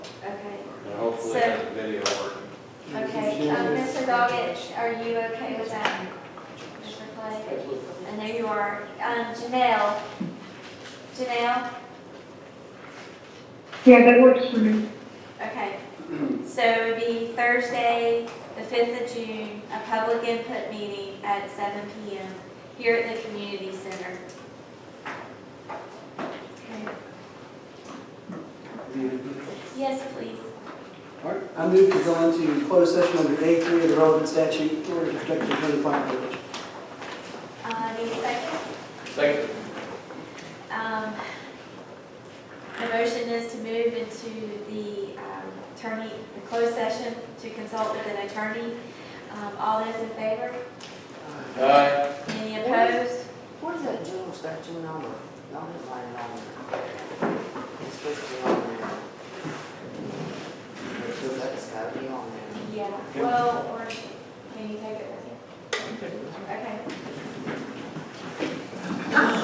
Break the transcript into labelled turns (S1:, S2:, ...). S1: we have the video working.
S2: Okay, um, Mr. Doggett, are you okay with that? Mr. Clay? And there you are. Um, Janelle, Janelle,
S3: Yeah, that works for me.
S2: okay. So it would be Thursday, the fifth of June, a public input meeting at seven P M. here at the community center. Okay. Yes, please.
S4: All right, I move to go into closed session under A three of the relevant statute in order to protect the attorney client privilege.
S2: Uh, need a second?
S1: Second.
S2: Um, The motion is to move into the um, attorney, the closed session to consult with an attorney. Um, All those in favor?
S1: Aye.
S2: Any opposed?
S5: What is that June, that June number? Y'all didn't write it on there. It's supposed to be on there. That's gotta be on there.
S2: Yeah, well, or